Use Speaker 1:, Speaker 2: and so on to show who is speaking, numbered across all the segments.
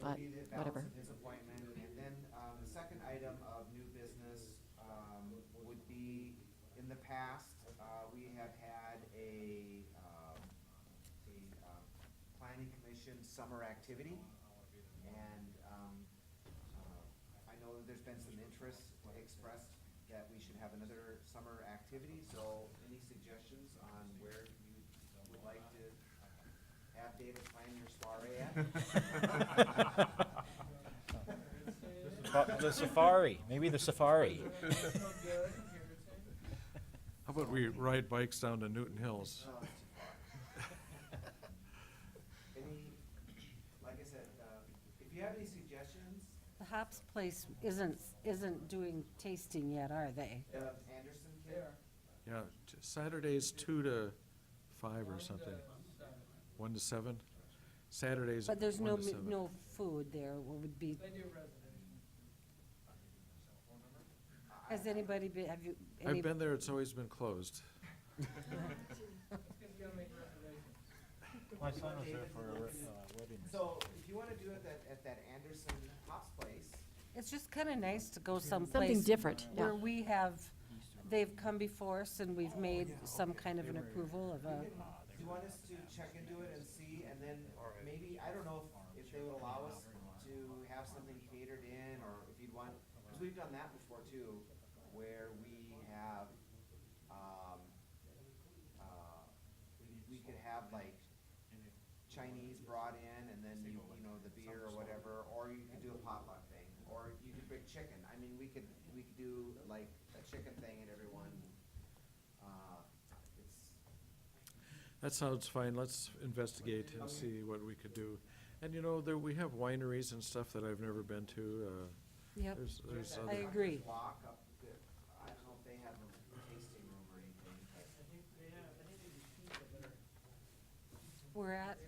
Speaker 1: but
Speaker 2: He did balance
Speaker 1: whatever.
Speaker 2: of his appointment, and then, um, the second item of new business, um, would be, in the past, uh, we have had a, um, a, um, planning commission summer activity, and, um, uh, I know that there's been some interest expressed that we should have another summer activity, so any suggestions on where you would like to have David plan your soiree at?
Speaker 3: Fa- The safari, maybe the safari.
Speaker 4: How about we ride bikes down to Newton Hills?
Speaker 2: Oh, it's too far. Any, like I said, uh, if you have any suggestions,
Speaker 5: The Hops Place isn't, isn't doing tasting yet, are they?
Speaker 2: uh, Anderson can.
Speaker 4: Yeah, t- Saturday's two to five or something. One to seven? Saturday's one
Speaker 5: But there's no,
Speaker 4: to
Speaker 5: mi-
Speaker 4: seven.
Speaker 5: no food there, what would be, has anybody been, have you, any,
Speaker 4: I've been there, it's always been closed.
Speaker 3: My son was there for a wedding.
Speaker 2: So if you wanna do it at, at that Anderson Hops Place,
Speaker 5: it's just kinda nice to go someplace.
Speaker 1: Something different, yeah.
Speaker 5: Where we have, they've come before us and we've made some kind of an approval of a,
Speaker 2: do you want us to check into it and see, and then maybe, I don't know if, if they would allow us to have something catered in, or if you'd want, cause we've done that before too, where we have, um, uh, we- we could have like Chinese brought in and then you, you know, the beer or whatever, or you could do a potluck thing, or you could bring chicken. I mean, we could, we could do like a chicken thing and everyone, uh, it's,
Speaker 4: That sounds fine, let's investigate and see what we could do. And you know, there, we have wineries and stuff that I've never been to, uh,
Speaker 5: yep,
Speaker 4: there's,
Speaker 2: There's
Speaker 4: there's
Speaker 2: that
Speaker 5: I
Speaker 4: other.
Speaker 2: Doctor's
Speaker 5: agree.
Speaker 2: Walk up the, I don't know if they have a tasting room or anything, but
Speaker 5: we're at,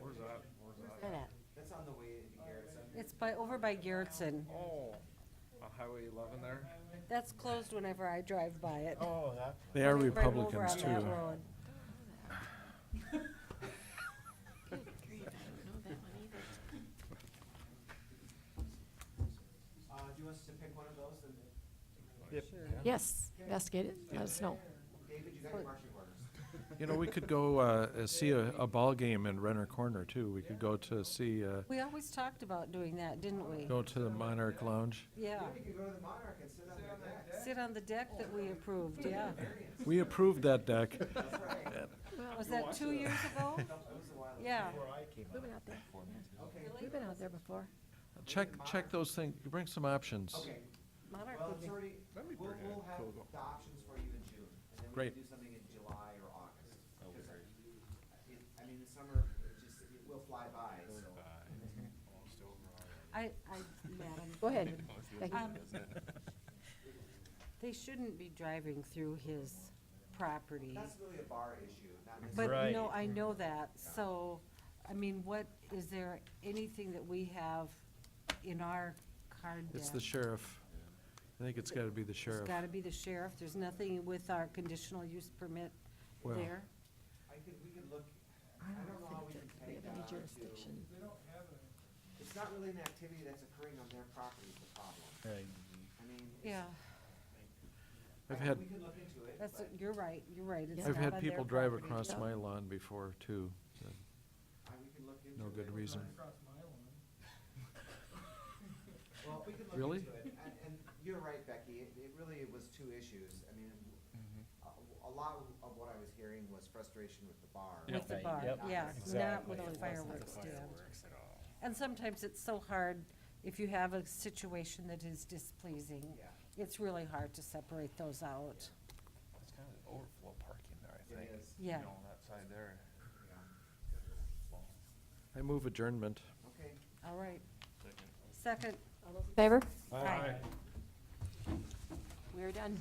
Speaker 6: Where's that? Where's that?
Speaker 2: that's on the way to Garrettson.
Speaker 5: it's by, over by Garrettson.
Speaker 6: Oh, on Highway eleven there?
Speaker 5: That's closed whenever I drive by it.
Speaker 3: Oh, that.
Speaker 4: They are
Speaker 5: Right over
Speaker 4: Republicans
Speaker 5: on that
Speaker 4: too.
Speaker 5: road.
Speaker 2: Uh, do you want us to pick one of those and,
Speaker 1: Yes, investigate it, let us know.
Speaker 2: David, you got your marching orders?
Speaker 4: You know, we could go, uh, uh, see a, a ball game in Renner Corner too. We could go to see, uh,
Speaker 5: We always talked about doing that, didn't we?
Speaker 4: go to the Monarch Lounge.
Speaker 5: Yeah,
Speaker 2: You could go to the Monarch and sit on their deck.
Speaker 5: sit on the deck that we approved, yeah.
Speaker 4: We approved that deck.
Speaker 2: That's right.
Speaker 5: Was that two years ago?
Speaker 2: That was a while ago.
Speaker 5: Yeah.
Speaker 1: We've been out there,
Speaker 2: Okay,
Speaker 1: we've been out there before.
Speaker 4: Check, check those things, bring some options.
Speaker 2: okay.
Speaker 5: Monarch
Speaker 2: Well,
Speaker 5: would
Speaker 2: it's
Speaker 5: be-
Speaker 2: already,
Speaker 6: That'd be
Speaker 2: we'll,
Speaker 6: pretty
Speaker 2: we'll have
Speaker 6: cool.
Speaker 2: the options for you in June. And then we
Speaker 4: Great.
Speaker 2: can do something in July or August. 'cause it- I mean, the summer, it just, it will fly by, so.
Speaker 5: I, I, Madam.
Speaker 1: Go ahead. Becky.
Speaker 5: Um, They shouldn't be driving through his property.
Speaker 2: That's really a bar issue, not necessarily.
Speaker 5: But,
Speaker 3: Right.
Speaker 5: no, I know that, so, I mean, what, is there anything that we have in our card deck?
Speaker 4: It's the sheriff. I think it's gotta be the
Speaker 5: It's
Speaker 4: sheriff.
Speaker 5: gotta be the sheriff, there's nothing with our conditional use permit
Speaker 4: Well,
Speaker 5: there.
Speaker 2: I could, we could look,
Speaker 1: I
Speaker 2: I don't know how
Speaker 1: don't
Speaker 2: we
Speaker 1: think
Speaker 2: can
Speaker 1: that we
Speaker 2: peg
Speaker 1: have
Speaker 2: that
Speaker 1: any
Speaker 2: on to.
Speaker 1: jurisdiction.
Speaker 2: It's not really an activity that's occurring on their property is the problem. I mean. it's-
Speaker 5: Yeah,
Speaker 2: I
Speaker 4: I've
Speaker 2: think
Speaker 4: had-
Speaker 2: We can look into it,
Speaker 5: that's,
Speaker 2: but
Speaker 5: you're right, you're right. it's
Speaker 1: Yeah.
Speaker 4: I've
Speaker 5: not
Speaker 4: had
Speaker 5: on their
Speaker 4: people drive
Speaker 5: property.
Speaker 4: across
Speaker 1: Yeah.
Speaker 4: my lawn before too. so
Speaker 2: I- we can look into it.
Speaker 4: No good reason.
Speaker 2: Well, we can look
Speaker 4: Really?
Speaker 2: into it. And, and you're right, Becky, it, it really was two issues. I mean,
Speaker 4: Mm-hmm.
Speaker 2: a, a lot of what I was hearing was frustration with the bar.
Speaker 5: With the
Speaker 3: Right,
Speaker 5: bar,
Speaker 3: yep.
Speaker 5: yeah, not
Speaker 3: Exactly.
Speaker 5: with
Speaker 3: It
Speaker 5: the
Speaker 3: wasn't
Speaker 5: fireworks stand. And sometimes it's so hard, if you have a situation that is displeasing,
Speaker 2: Yeah.
Speaker 5: it's really hard to separate those out.
Speaker 6: It's kind of overflow parking there, I
Speaker 2: It
Speaker 6: think.
Speaker 2: is,
Speaker 5: Yeah.
Speaker 6: You know, on that side there.
Speaker 2: yeah.
Speaker 4: I move adjournment.
Speaker 2: Okay.
Speaker 5: All right. Second,
Speaker 1: Favor?
Speaker 5: Aye.
Speaker 1: We're done.